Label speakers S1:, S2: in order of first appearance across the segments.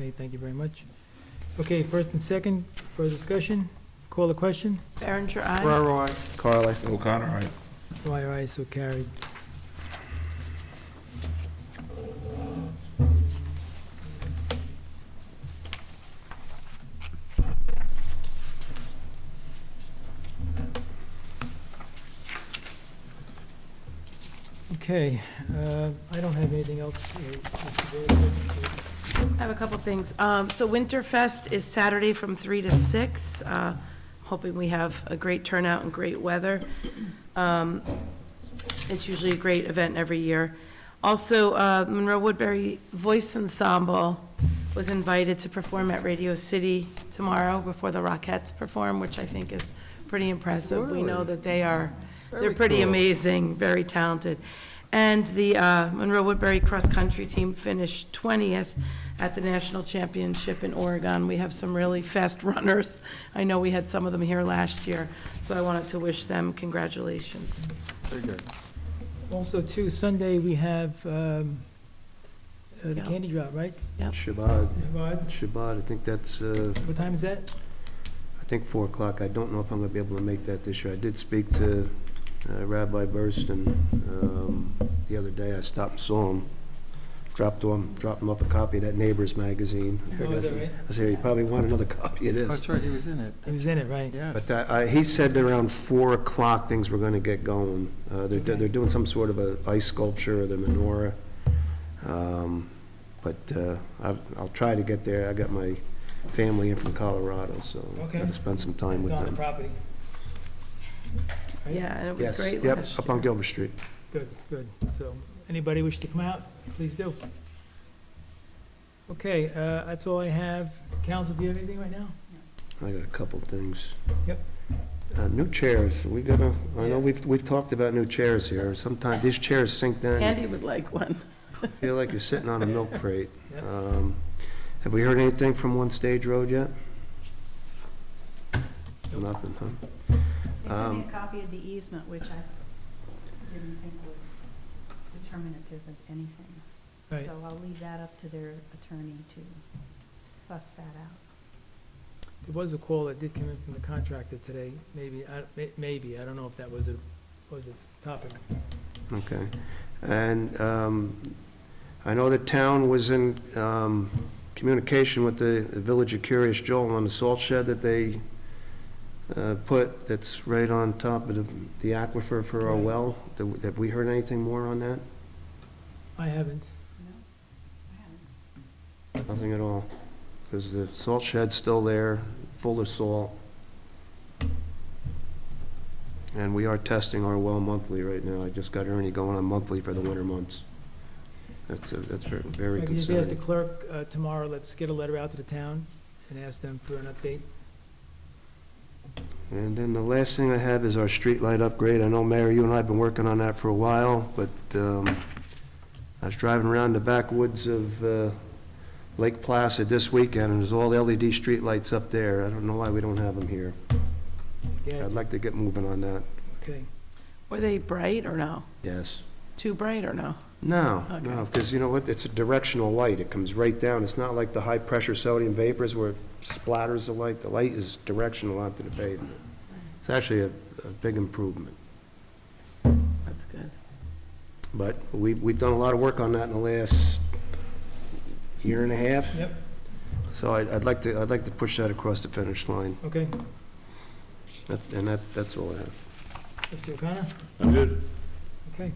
S1: Okay, thank you very much. Okay, first and second, further discussion, call the question,
S2: Berenger, aye.
S3: Ferraro, I.
S4: Carly. O'Connor, aye.
S1: why are I so carried? Okay, uh, I don't have anything else. uh, Mr. Davis.
S2: I have a couple things. Um, So Winterfest is Saturday from 3 to 6. Uh, Hoping we have a great turnout and great weather. Um, It's usually a great event every year. Also, uh, Monroe Woodbury Voice Ensemble was invited to perform at Radio City tomorrow before the Rockettes perform, which I think is pretty impressive. We know that they are, they're pretty amazing, very talented. And the uh, Monroe Woodbury Cross Country Team finished 20th at the National Championship in Oregon. We have some really fast runners. I know we had some of them here last year, so I wanted to wish them congratulations.
S3: Very good.
S1: Also, too, Sunday, we have um, uh, the
S2: Yeah.
S1: candy drop, right?
S5: Shabbat,
S1: Rod,
S5: Shabbat, I think that's, uh,
S1: What time is that?
S5: I think 4 o'clock. I don't know if I'm going to be able to make that this year. I did speak to uh, Rabbi Burston um, the other day. I stopped and saw him, dropped him, dropped him off a copy of that Neighbors magazine. I
S1: Oh, is
S5: figured-
S1: that right?
S5: I said, you probably want another copy of this.
S3: That's right, he was in it,
S1: He was in it, right?
S5: But
S3: yes.
S5: that- I- he said that around 4 o'clock, things were going to get going. Uh, They're
S1: Okay.
S5: they're doing some sort of a ice sculpture, of the menorah. Um, But uh, I've- I'll try to get there. I got my family in from Colorado, so I'm
S1: Okay.
S5: going to spend some time
S1: It's
S5: with
S1: on the
S5: them.
S1: property. Right?
S2: Yeah, and it was
S5: Yes,
S2: great
S5: yep,
S2: last
S5: up on
S2: year.
S5: Gilbert Street.
S1: Good, good. So, anybody wish to come out, please do. Okay, uh, that's all I have. Council, do you have anything right now?
S5: I got a couple things.
S1: Yep.
S5: Uh, New chairs, we gonna, I
S1: Yeah.
S5: know we've we've talked about new chairs here. Sometimes these chairs sink down. You
S2: Andy would like one.
S5: feel like you're sitting on a milk crate.
S1: Yep.
S5: Um, Have we heard anything from One Stage Road yet?
S1: Nope.
S5: Nothing, huh?
S6: They sent me
S5: Um,
S6: a copy of the easement, which I didn't think was determinative of anything.
S1: Right.
S6: So I'll leave that up to their attorney to fuss that out.
S1: There was a call that did come in from the contractor today, maybe, I- may- maybe, I don't know if that was a, was its topic.
S5: Okay. And um, I know the town was in um, communication with the Village of Curious Joel on the salt shed that they uh, put, that's right on top of the- the aquifer for our
S1: Right.
S5: well. Do- Have we heard anything more on that?
S1: I haven't.
S6: No, I haven't.
S5: Nothing at all? Because the salt shed's still there, full of salt. And we are testing our well monthly right now. I just got Ernie going on monthly for the winter months. That's, a- that's ver- very
S1: I can just ask the
S5: concerning.
S1: clerk uh, tomorrow, let's get a letter out to the town and ask them for an update.
S5: And then the last thing I have is our streetlight upgrade. I know, Mayor, you and I have been working on that for a while, but um, I was driving around the backwoods of uh, Lake Placid this weekend, and there's all E LED streetlights up there. I don't know why we don't have them here.
S1: Yeah,
S5: I'd like to get moving on that.
S1: okay.
S2: Were they bright or no?
S5: Yes.
S2: Too bright or no?
S5: No, no,
S2: Okay.
S5: because you know what, it's a directional light, it comes right down, it's not like the high-pressure sodium vapors where it splatters the light, the light is directional onto the pavement. It's actually a, a big improvement,
S2: That's good.
S5: but we, we've done a lot of work on that in the last year and a half,
S1: Yep,
S5: so I'd, I'd like to, I'd like to push that across the finish line,
S1: okay.
S5: that's, and that, that's all I have.
S1: Mr. O'Connor?
S4: I'm good.
S1: Okay.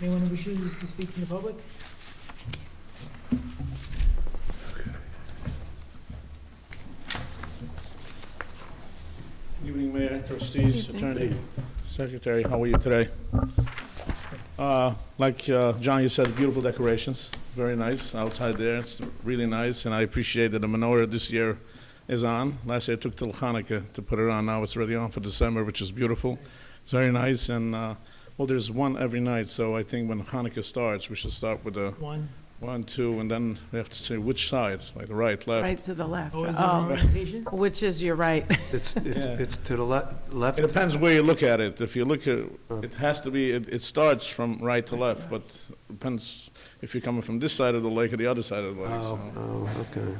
S1: Anyone wishing to speak in the public?
S4: Evening, Mayor, trustees,
S2: Evening.
S4: attorney, secretary, how are you today? Uh, Like uh, John, you said, beautiful decorations, very nice outside there, it's really nice, and I appreciate that the menorah this year is on. Last year it took till Hanukkah to put it on, now it's already on for December, which is beautiful. It's very nice, and, uh, well, there's one every night, so I think when Hanukkah starts, we should start with a
S1: One,
S4: One, two, and then we have to say which side, like the right, left.
S2: right to the left.
S1: Oh, is it
S2: Oh,
S1: an orientation?
S2: Which is your right.
S5: It's, it's,
S4: Yeah.
S5: it's to the le- left.
S4: It depends where you look at it. If you look at,
S5: Uh.
S4: it has to be, it, it starts from right to left, but depends if you're coming from this side of the lake or the other side of the lake, so.
S5: Oh, okay.